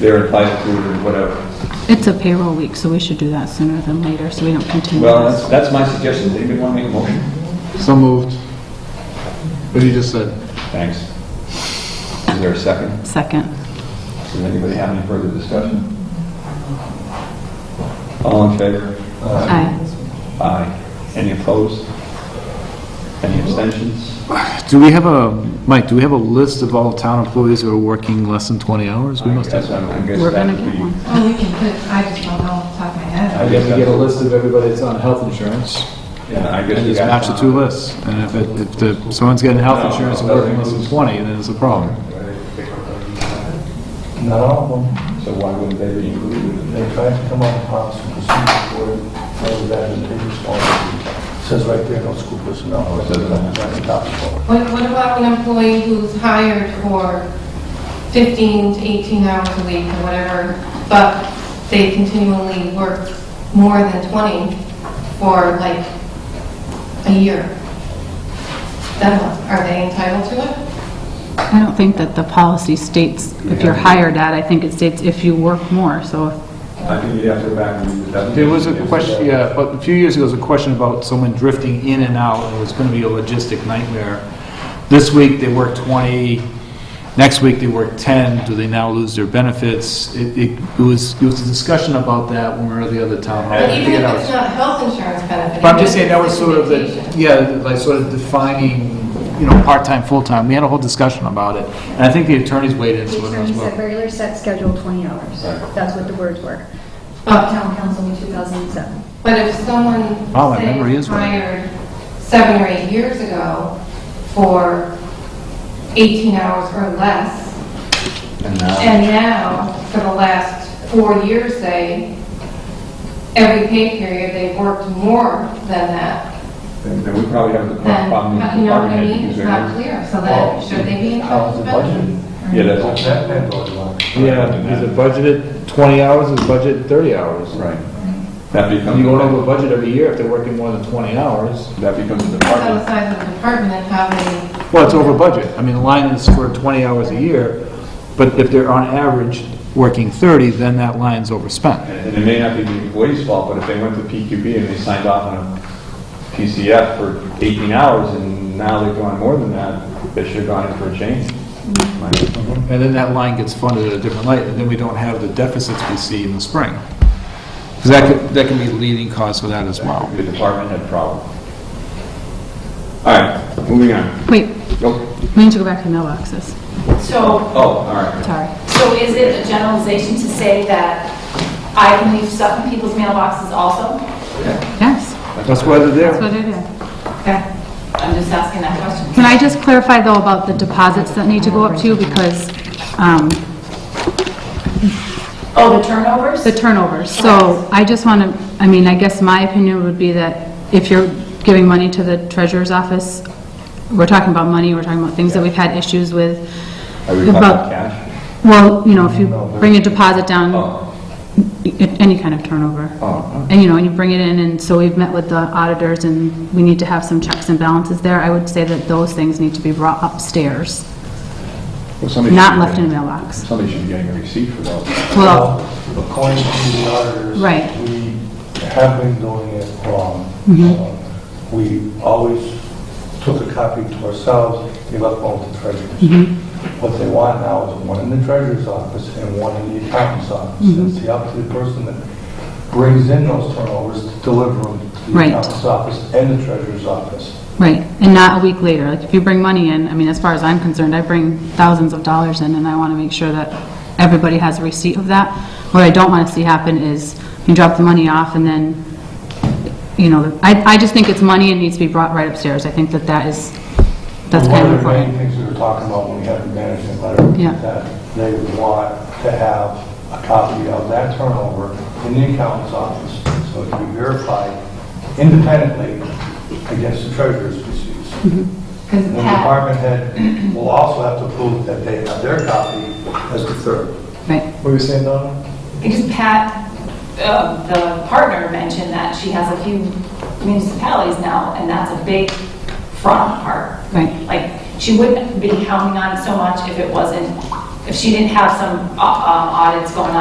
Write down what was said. they're entitled to it or whatever. It's a payroll week, so we should do that sooner than later, so we don't continue Well, that's, this. that's my suggestion. Does anybody want to make a motion? So moved. What he just said. Thanks. Is there a second? Second. Does anybody have any further discussion? All in favor? Aye. Aye. Any opposed? Any abstentions? Do we have a, Mike, do we have a list of all town employees who are working less than 20 hours? We must have. That's- I guess We're that gonna would get be- one. Oh, we can put, I just don't know off the top of my head. I guess We get a that's- list of everybody that's on health insurance. Yeah, I guess And we just got- match the two lists. And if it, if the, someone's getting health insurance and working less than 20, then it's a problem. Not all of them. So why wouldn't they be included? in They tried to come up with policy and procedure for it, rather than the previous one. It Says right there, no school personnel. Oh, it says that. That's the top floor. What, what about an employee who's hired for 15 to 18 hours a week or whatever, but they continually work more than 20 for like a year? Then what? are they entitled to it? I don't think that the policy states if you're hired at, I think it states if you work more, so I think you'd have to go back and. read the definition. There was a question, yeah, but a few years ago, there was a question about someone drifting in and out, and it was going to be a logistic nightmare. This week, they worked 20, next week, they worked 10, do they now lose their benefits? It it- it was, it was a discussion about that when we were at the other town hall. I But even forget how if it's- it's not health insurance benefit. But I'm even just if saying, that it's was sort of the, vacation. yeah, like sort of defining, you know, part-time, full-time, we had a whole discussion about it, and I think the attorneys weighed in The on it as attorney said well. regular set schedule 20 hours. That's what the words were. But Town council in 2007. But if someone, Wow, my say, memory was is right. hired seven or eight years ago for 18 hours or less, And now- and now, for the last four years, say, every pay period, they've worked more than that, Then then we probably have the then, problem with you the know what I department head mean? It's because not they're- clear, so then, should they be How's entitled the to budget? benefits? Yeah, What's that's, that been going on? Yeah, is it budgeted 20 hours, is budgeted 30 hours? right. That becomes. You go over budget every year if they're working more than 20 hours. That becomes a Depends on the department. size of the department and how many, Well, it's over budget. I mean, the line is for 20 hours a year, but if they're on average working 30, then that line's overspent. And it may not be the employee's fault, but if they went to PQB and they signed off on a PCF for 18 hours and now they've gone more than that, they should have gone in for a change. Mm-hmm. My- And then that line gets funded at a different light, and then we don't have the deficits we see in the spring. Because that could, that can be a leading cause for that as well. The department had problem. All right, moving on. wait, Oh, we need to go back to mailboxes. So, oh, all right. Sorry. so is it a generalization to say that I can leave stuff in people's mailboxes also? Yes, That's why they're that's there. what it is. okay. I'm just asking that question. Can I just clarify, though, about the deposits that need to go up too, because um, Oh, the turnovers? the turnovers. So I just want to, I mean, I guess my opinion would be that if you're giving money to the treasurer's office, we're talking about money, we're talking about things that we've had issues with. Are we talking about- cash? Well, you know, if you bring a deposit down, Oh, any kind of turnover. oh, And, you know, and you bring it in, and so we've met with the auditors, and we need to have some checks and balances there. I would say that those things need to be brought upstairs, Well, oh. somebody should not be left in a getting- mailbox. Somebody should be getting a receipt for those. Well, According to the auditors. Right. Mm-hmm. We have been doing it wrong. Uh, We always took a copy to ourselves, we left one with the Mm-hmm. treasurers. What they want now is one in the treasurer's office and one in the accountant's office. Mm-hmm. It's up to the person that brings in those turnovers to deliver them to the Right. accountant's office and the treasurer's office. Right, and not a week later. Like, if you bring money in, I mean, as far as I'm concerned, I bring thousands of dollars in, and I want to make sure that everybody has a receipt of that. What I don't want to see happen is you drop the money off, and then, you know, I, I just think it's money and needs to be brought right upstairs. I think that that is, that's kind of One of the main important. things we were talking about when we had the management letter, Yeah. that they would want to have a copy of that turnover in the accountant's office, so it can be verified independently against the treasurer's receipts. Mhm. Because And the Pat, department head will also have to prove that they have their copy as the third. Right, What were you saying, Donna? Because Pat, uh, the partner mentioned that she has a few municipalities now, and that's a big front on her. right. Like, she wouldn't be counting on it so much if it wasn't if she didn't have some uh, uh, audits going on.